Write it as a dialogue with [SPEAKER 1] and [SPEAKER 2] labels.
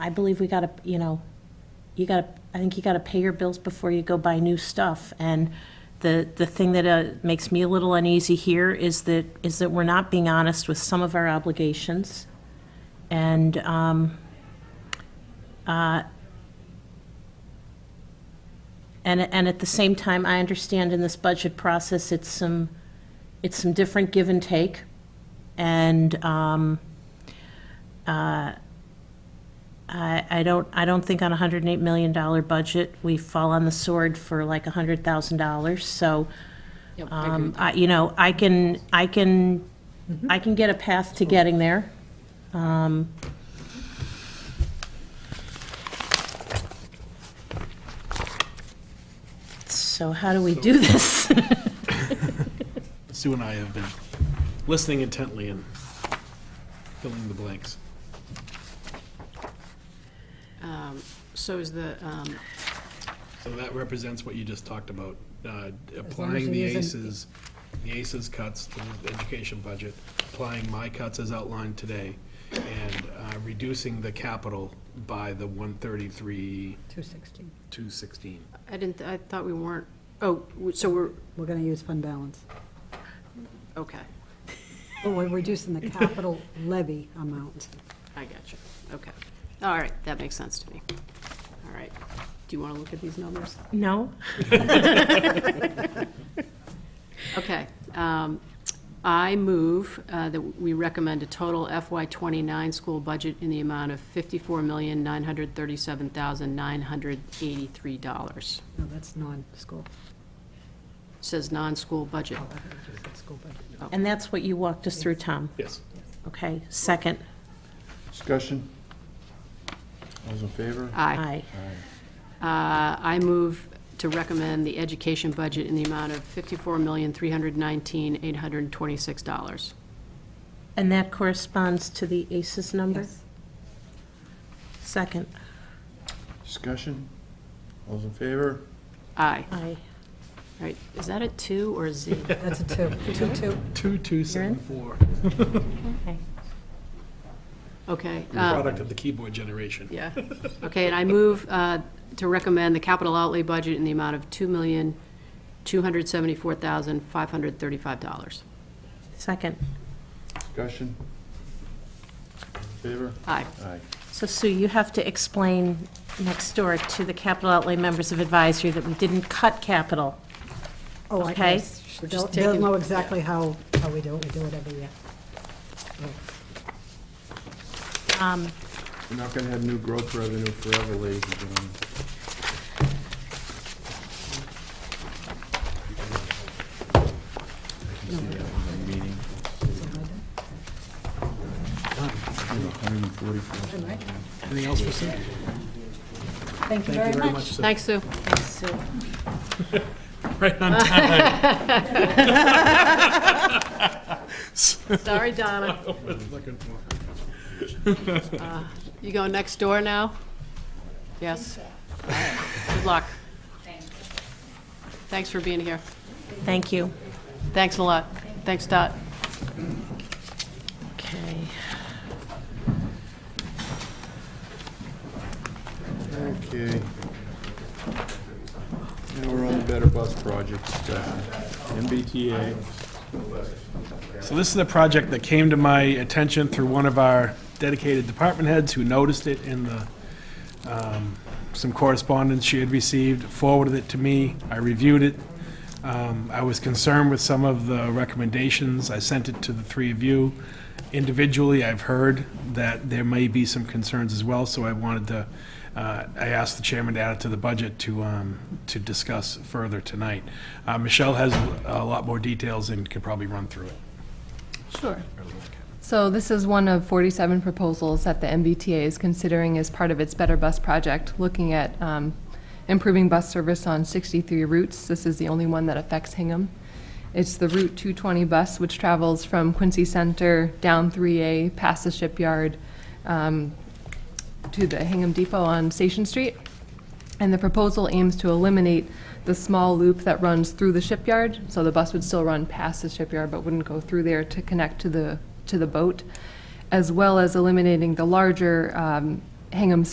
[SPEAKER 1] I believe we gotta, you know, you gotta, I think you gotta pay your bills before you go buy new stuff. And the, the thing that uh, makes me a little uneasy here is that, is that we're not being honest with some of our obligations. And, um, uh, and, and at the same time, I understand in this budget process, it's some, it's some different give and take. And, um, I, I don't, I don't think on a hundred and eight million dollar budget, we fall on the sword for like a hundred thousand dollars, so,
[SPEAKER 2] Yep, I agree
[SPEAKER 1] um,
[SPEAKER 2] with you.
[SPEAKER 1] I, you know, I can, I can, I can get a path to getting there. Um, So how do we do this?
[SPEAKER 3] Sue and I have been listening intently and filling the blanks.
[SPEAKER 2] Um, So is the, um,
[SPEAKER 3] So that represents what you just talked about, uh,
[SPEAKER 2] as
[SPEAKER 3] applying
[SPEAKER 2] it
[SPEAKER 3] the
[SPEAKER 2] isn't-
[SPEAKER 3] ACEs, the ACEs cuts to the education budget, applying my cuts as outlined today, and uh, reducing the capital by the 133,
[SPEAKER 4] Two sixty.
[SPEAKER 3] 216.
[SPEAKER 2] I didn't, I thought we weren't, oh, w- so we're,
[SPEAKER 4] We're gonna use fund balance.
[SPEAKER 2] okay,
[SPEAKER 4] But we're reducing the capital levy amount.
[SPEAKER 2] I got you, okay. All right, that makes sense to me. All right, do you want to look at these numbers?
[SPEAKER 1] No?
[SPEAKER 2] Okay. um, I move uh, that we recommend a total FY '29 school budget in the amount of $54,937,983.
[SPEAKER 4] No, that's non-school.
[SPEAKER 2] Says non-school budget.
[SPEAKER 4] Oh, I thought you said school budget.
[SPEAKER 1] And that's what you walked us through, Tom.
[SPEAKER 3] Yes.
[SPEAKER 1] Okay, second,
[SPEAKER 5] Discussion? All Those in favor?
[SPEAKER 2] Aye.
[SPEAKER 1] aye.
[SPEAKER 2] Uh, I move to recommend the education budget in the amount of $54,319,826.
[SPEAKER 1] And that corresponds to the ACES number?
[SPEAKER 4] Yes.
[SPEAKER 1] Second,
[SPEAKER 5] Discussion? All Those in favor?
[SPEAKER 2] Aye.
[SPEAKER 1] aye.
[SPEAKER 2] All right, is that a two or a Z?
[SPEAKER 4] That's a two, two, two.
[SPEAKER 3] 2274,
[SPEAKER 1] Okay.
[SPEAKER 2] Okay. uh,
[SPEAKER 3] product of the keyboard generation.
[SPEAKER 2] Yeah. Okay, and I move uh, to recommend the capital outlay budget in the amount of $2,274,535.
[SPEAKER 1] Second.
[SPEAKER 5] Discussion? All in Favor?
[SPEAKER 2] Aye.
[SPEAKER 5] Aye.
[SPEAKER 1] So Sue, you have to explain next door to the capital outlay members of advisory that we didn't cut capital.
[SPEAKER 4] Oh, I
[SPEAKER 1] Okay.
[SPEAKER 4] guess.
[SPEAKER 2] We're
[SPEAKER 4] They'll,
[SPEAKER 2] just
[SPEAKER 4] they'll
[SPEAKER 2] taking-
[SPEAKER 4] know exactly how, how we do it. We do it every year. Oh,
[SPEAKER 1] Um,
[SPEAKER 5] We're not gonna have new growth revenue forever, ladies and gentlemen. I can see that in the meeting.
[SPEAKER 3] Anything else for Sue?
[SPEAKER 4] Thank you very much.
[SPEAKER 3] Sue.
[SPEAKER 2] Thanks, Sue.
[SPEAKER 3] Right on time.
[SPEAKER 2] Sorry, Donna. Uh,
[SPEAKER 3] Looking for.
[SPEAKER 2] You going next door now? Yes? All right. Good luck. Thanks for being here.
[SPEAKER 1] Thank you.
[SPEAKER 2] Thanks a lot. Thanks, Dot.
[SPEAKER 1] Okay.
[SPEAKER 5] Okay. Now we're on the Better Bus Project uh, discussion. MBTA.
[SPEAKER 3] So this is a project that came to my attention through one of our dedicated department heads who noticed it in the, um, some correspondence she had received, forwarded it to me, I reviewed it. Um, I was concerned with some of the recommendations, I sent it to the three of you. Individually, I've heard that there may be some concerns as well, so I wanted to, uh, I asked the chairman to add it to the budget to, um, to discuss further tonight. Uh, Michelle has a lot more details and could probably run through it.
[SPEAKER 6] Sure. So this is one of 47 proposals that the MBTA is considering as part of its Better Bus Project, looking at um, improving bus service on 63 routes. This is the only one that affects Hingham. It's the Route 220 bus, which travels from Quincy Center down 3A, past the shipyard, um, to the Hingham Depot on Station Street. And the proposal aims to eliminate the small loop that runs through the shipyard, so the bus would still run past the shipyard but wouldn't go through there to connect to the, to the boat, as well as eliminating the larger um, Hingham